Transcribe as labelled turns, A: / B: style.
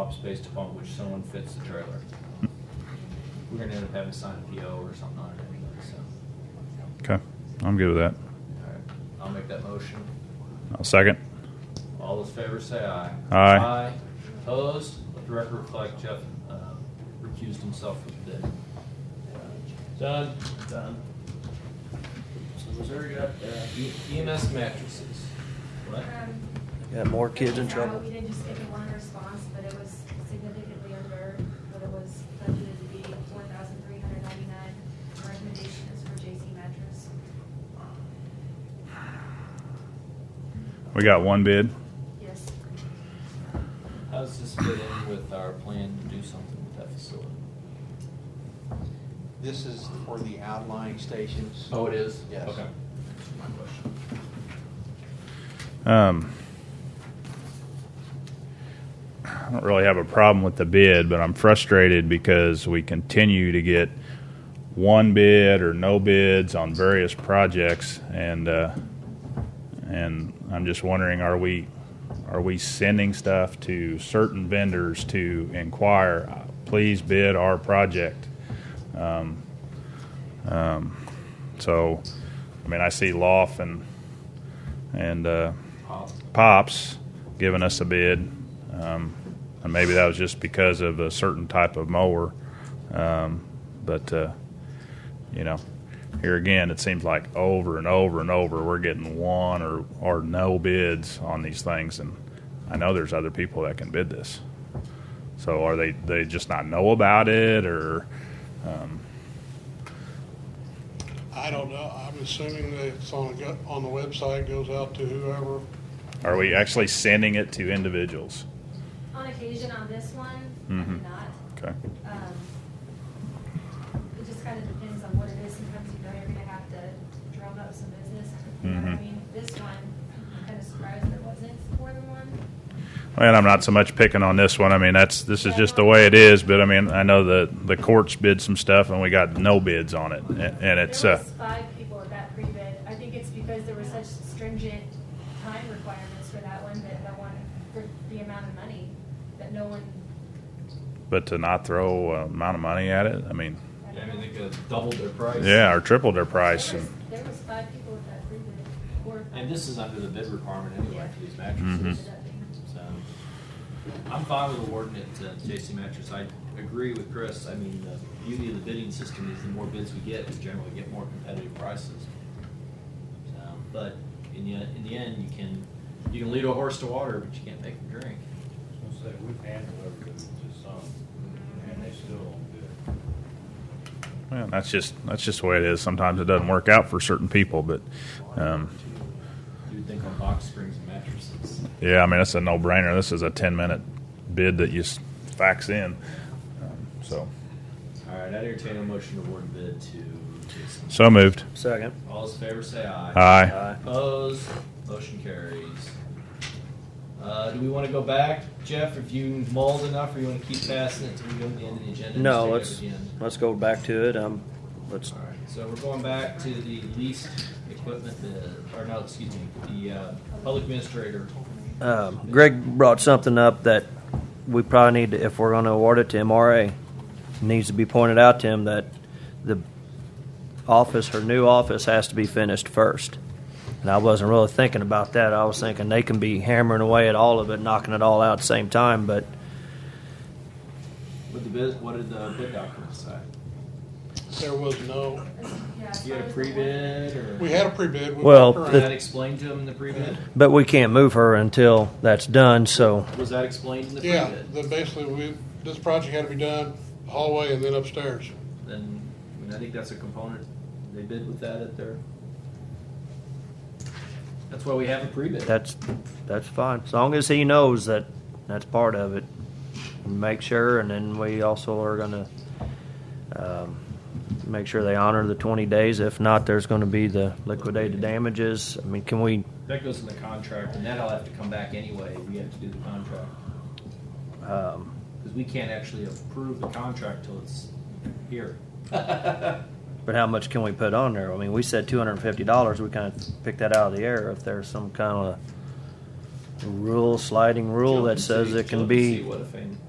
A: jobs based upon which someone fits the trailer. We're gonna end up having to sign a PO or something on it anyway, so,
B: Okay, I'm good with that.
A: alright, I'll make that motion.
B: I'll second.
A: All those favors say aye.
B: Aye.
A: Aye, opposed, let the record reflect Jeff, uh, recused himself from the bid. Done? Done. So Missouri got, uh, E- EMS mattresses. What?
C: Um.
D: Got more kids in trouble.
C: We didn't just get the one response, but it was significantly under what it was budgeted to be, four thousand three hundred ninety-nine. Recommendation is for JC mattress.
B: We got one bid.
C: Yes.
A: How does this fit in with our plan to do something with that facility?
E: This is for the outlying stations.
A: Oh, it is?
E: Yes.
A: Okay. My question.
B: Um, I don't really have a problem with the bid, but I'm frustrated because we continue to get one bid or no bids on various projects, and uh, and I'm just wondering, are we are we sending stuff to certain vendors to inquire, uh, please bid our project? Um, um, so, I mean, I see Loft and and. Uh,
A: Pop.
B: Pops giving us a bid, um, and maybe that was just because of a certain type of mower. Um, but uh, you know, here again, it seems like over and over and over we're getting one or or no bids on these things, and I know there's other people that can bid this. So are they they just not know about it or? Um,
F: I don't know, I'm assuming that it's on, the go- on the website, goes out to whoever.
B: are we actually sending it to individuals?
C: On occasion on this one, I
B: Mhm.
C: did not.
B: Okay.
C: Um, It just kind of depends on what it is. Sometimes you know you're gonna have to drum up some business. You know what I
B: Mhm.
C: mean? This one, I'm kind of surprised it wasn't more than one.
B: And I'm not so much picking on this one. I mean, that's this is just the way it is. But I mean, I know the the courts bid some stuff, and we got no bids on it, and, and it's
C: There
B: uh,
C: was five people at that pre-bid. I think it's because there were such stringent time requirements for that one that no one, for the amount of money, that no one.
B: but to not throw a amount of money at it. I mean,
C: I
A: Yeah, I
C: don't
A: mean, they
C: know.
A: could have doubled their price.
B: yeah, or tripled their
C: There
B: price,
C: was-
B: and
C: There was five people at that pre-bid, or.
A: And this is under the bid requirement anyway for these
B: Mhm.
C: Mm-hmm.
A: mattresses. So I'm fine with awarding it to JC Mattress. I agree with Chris. I mean, the beauty of the bidding system is the more bids we get, we generally get more competitive prices. So, But in the, in the end, you can, you can lead a horse to water, but you can't make him drink.
G: I was gonna say, we've handled everything to some, and they still don't do it.
B: well, that's just that's just the way it is. Sometimes it doesn't work out for certain people, but um,
A: You would think on box springs and mattresses.
B: yeah, I mean, that's a no brainer. This is a ten minute bid that you s- fax in, um, so
A: All right, I entertain a motion to award bid to JC.
B: so moved.
D: Second.
A: All those in favor say aye.
B: Aye.
D: Aye.
A: Opposed, motion carries. Uh, do we wanna go back, Jeff, if you mulled enough, or you wanna keep passing it till we go to the end of the agenda? and
D: No,
A: just
D: let's,
A: take it at the end?
D: let's go back to it. Um, let's,
A: Alright, so we're going back to the leased equipment, uh, or no, excuse me, the, uh, public administrator.
D: um, Greg brought something up that we probably need, to if we're gonna award it to MRA, needs to be pointed out to him that the office, her new office has to be finished first. And I wasn't really thinking about that. I was thinking they can be hammering away at all of it, knocking it all out at the same time, but
A: What the bid, what did the bid document say?
F: There was no,
A: You had a pre-bid, or?
F: we had a pre-bid. we
D: Well,
F: walked
A: Was
F: around.
A: that explained to him in the pre-bid?
D: But we can't move her until that's done, so
A: Was that explained in the pre-bid?
F: Yeah, the, basically, we, this project had to be done hallway and then upstairs.
A: then I mean I think that's a component. They bid with that at their. That's why we have a pre-bid.
D: that's, that's fine. As long as he knows that that's part of it. Make sure, and then we also are gonna, um, make sure they honor the twenty days. If not, there's gonna be the liquidated damages. I mean, can we,
A: That goes in the contract, and that'll have to come back anyway. We have to do the contract
D: um,
A: because we can't actually approve the contract till it's here.
D: but how much can we put on there? I mean, we said two hundred and fifty dollars. We kinda picked that out of the air. If there's some kind of rule, sliding rule that says it can
A: See
D: be
A: what if any-